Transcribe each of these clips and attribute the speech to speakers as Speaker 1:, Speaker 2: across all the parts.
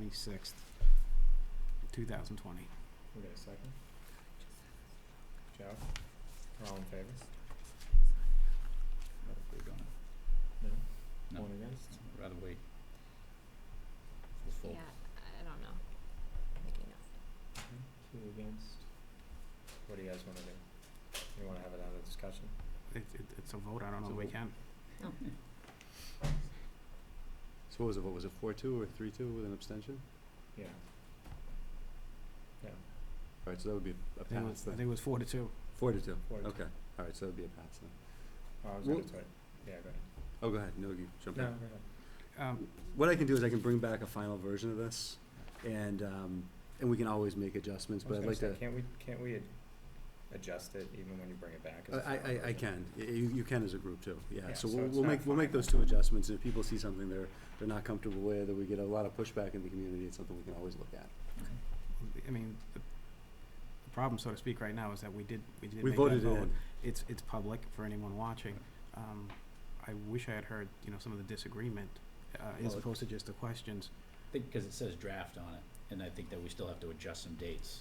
Speaker 1: twenty-sixth, two thousand twenty.
Speaker 2: We got a second? Joe? All in favor?
Speaker 3: Not if we're gonna- No.
Speaker 2: One against?
Speaker 3: I'd Rather wait. We'll fold.
Speaker 4: Yeah, I don't know. Maybe not.
Speaker 2: Two against. What do you guys wanna do? You wanna have another discussion?
Speaker 1: It, it, it's a vote, I don't know
Speaker 3: It's a
Speaker 1: that we
Speaker 3: vote.
Speaker 1: can.
Speaker 5: So what was it, what was it, four two or three two with an abstention?
Speaker 2: Yeah. Yeah,
Speaker 5: Alright, so that would be a
Speaker 1: I think it
Speaker 5: pass
Speaker 1: was, I
Speaker 5: then.
Speaker 1: think it was four to two.
Speaker 5: Four to two,
Speaker 2: four to two.
Speaker 5: okay, alright, so that'd be a pass then.
Speaker 2: Oh, I was gonna
Speaker 5: Well-
Speaker 2: try, yeah, go ahead.
Speaker 5: Oh, go ahead, no, you jump in.
Speaker 2: No, go ahead.
Speaker 1: Um,
Speaker 5: What I can do is I can bring back a final version of this and, um, and we can always make adjustments,
Speaker 2: I was
Speaker 5: but I'd
Speaker 2: gonna
Speaker 5: like to,
Speaker 2: say, Can't we, can't we ad- adjust it even when you bring it back? as a
Speaker 5: I, I, I
Speaker 2: final version?
Speaker 5: can, Y- you, you can as a group too, yeah.
Speaker 2: Yeah,
Speaker 5: So
Speaker 2: so
Speaker 5: we'll,
Speaker 2: it's
Speaker 5: we'll
Speaker 2: not
Speaker 5: make, we'll make
Speaker 2: final.
Speaker 5: those two adjustments and if people see something they're, they're not comfortable with or we get a lot of pushback in the community, it's something we can always look at.
Speaker 1: I mean, the, the problem, so to speak, right now is that we did, we did
Speaker 5: We
Speaker 1: make that
Speaker 5: voted it
Speaker 1: vote.
Speaker 5: in.
Speaker 1: It's, it's public for anyone watching. Um, I wish I had heard, you know, some of the disagreement, uh, as
Speaker 3: Well, it-
Speaker 1: opposed to just the questions.
Speaker 3: I think, cause it says draft on it, and I think that we still have to adjust some dates.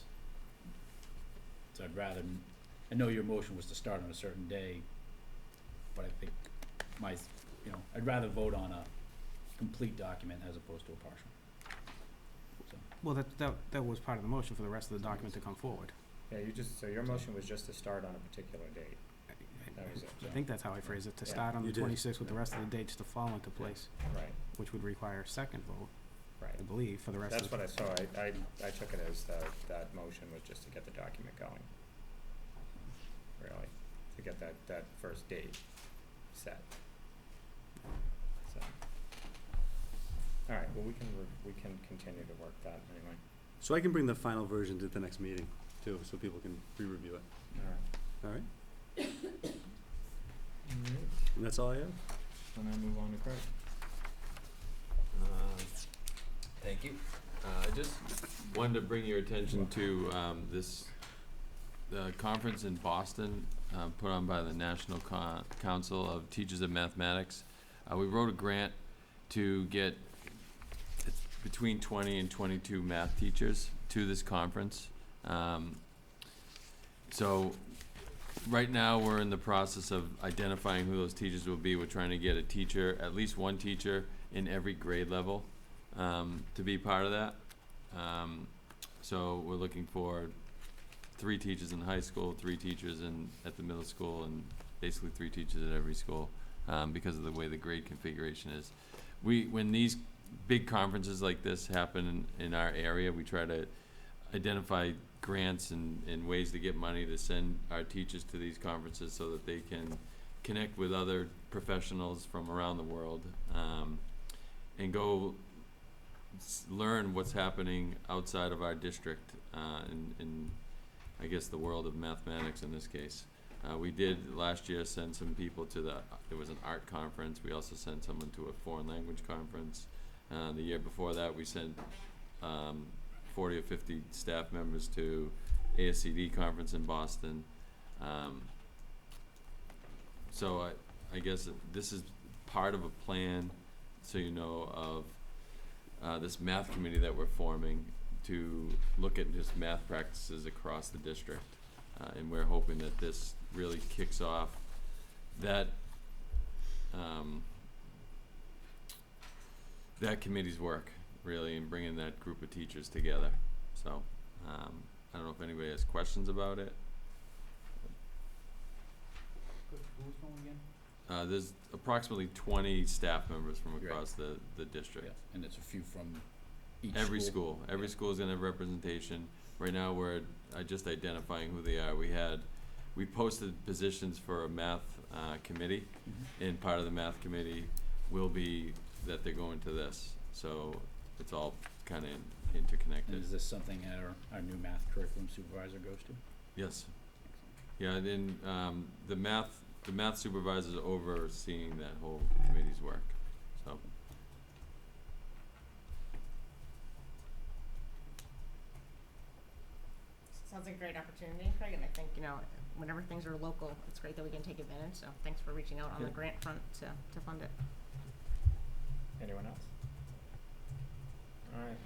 Speaker 3: So I'd rather, m- I know your motion was to start on a certain day, but I think my, s- you know, I'd rather vote on a complete document as opposed to a partial.
Speaker 1: Well, that, that, that was part of the motion for the rest of the document to come forward.
Speaker 2: Yeah, you just, so your motion was just to start on a particular date,
Speaker 1: I- I-
Speaker 2: that was it,
Speaker 1: I think that's how I phrased it, to
Speaker 2: Yeah.
Speaker 1: start on the
Speaker 5: You did.
Speaker 1: twenty-sixth with the rest of the dates to fall into place,
Speaker 2: right,
Speaker 1: which would require a second vote,
Speaker 2: right.
Speaker 1: I believe, for the rest
Speaker 2: That's
Speaker 1: of the.
Speaker 2: what I saw, I, I, I took it as that, that motion was just to get the document going. Really, to get that, that first date set. So. Alright, well, we can, re- we can continue to work that anyway.
Speaker 5: So I can bring the final version to the next meeting too, so people can re-review it,
Speaker 2: Alright.
Speaker 5: alright? And that's all I have?
Speaker 2: And I move on to Craig.
Speaker 6: Um, Thank you. Uh, I just wanted to bring your attention to um, this, the conference in Boston, uh, put on by the National Con- Council of Teachers of Mathematics. Uh, We wrote a grant to get it's between 20 and 22 math teachers to this conference. Um, So right now, we're in the process of identifying who those teachers will be. We're trying to get a teacher, at least one teacher, in every grade level um, to be part of that. Um, so we're looking for three teachers in high school, three teachers in at the middle school, and basically three teachers at every school um, because of the way the grade configuration is. We when these big conferences like this happen in, in our area, we try to identify grants and, and ways to get money to send our teachers to these conferences so that they can connect with other professionals from around the world. Um, and go s- learn what's happening outside of our district, uh, in, in, I guess, the world of mathematics in this case. Uh, we did last year send some people to the, there was an art conference, we also sent someone to a foreign language conference. Uh, the year before that, we sent, um, forty or fifty staff members to ASCD conference in Boston. Um, so I, I guess this is part of a plan so you know of uh, this math committee that we're forming to look at just math practices across the district. Uh, and we're hoping that this really kicks off that um, that committee's work really in bringing that group of teachers together. So um, I don't know if anybody has questions about it.
Speaker 3: Who's going again?
Speaker 6: Uh, there's approximately 20 staff members from
Speaker 3: Right.
Speaker 6: across the, the district.
Speaker 3: Yeah, and it's a few from each school.
Speaker 6: Every school, every school's gonna have representation. Right now, we're, uh, just identifying who they are. We had, we posted positions for a math, uh, committee,
Speaker 3: Mhm.
Speaker 6: and part of the math committee will be that they're going to this. So it's all kinda in-
Speaker 3: And
Speaker 6: interconnected.
Speaker 3: is this something our, our new math curriculum supervisor goes to?
Speaker 6: Yes, yeah, and then, um, the math, the math supervisor's overseeing that whole committee's work, so.
Speaker 4: Sounds like a great opportunity, Craig, and I think, you know, whenever things are local, it's great that we can take advantage, so thanks for reaching out on the
Speaker 6: Yeah.
Speaker 4: grant front to, to fund it.
Speaker 2: Anyone else? Alright,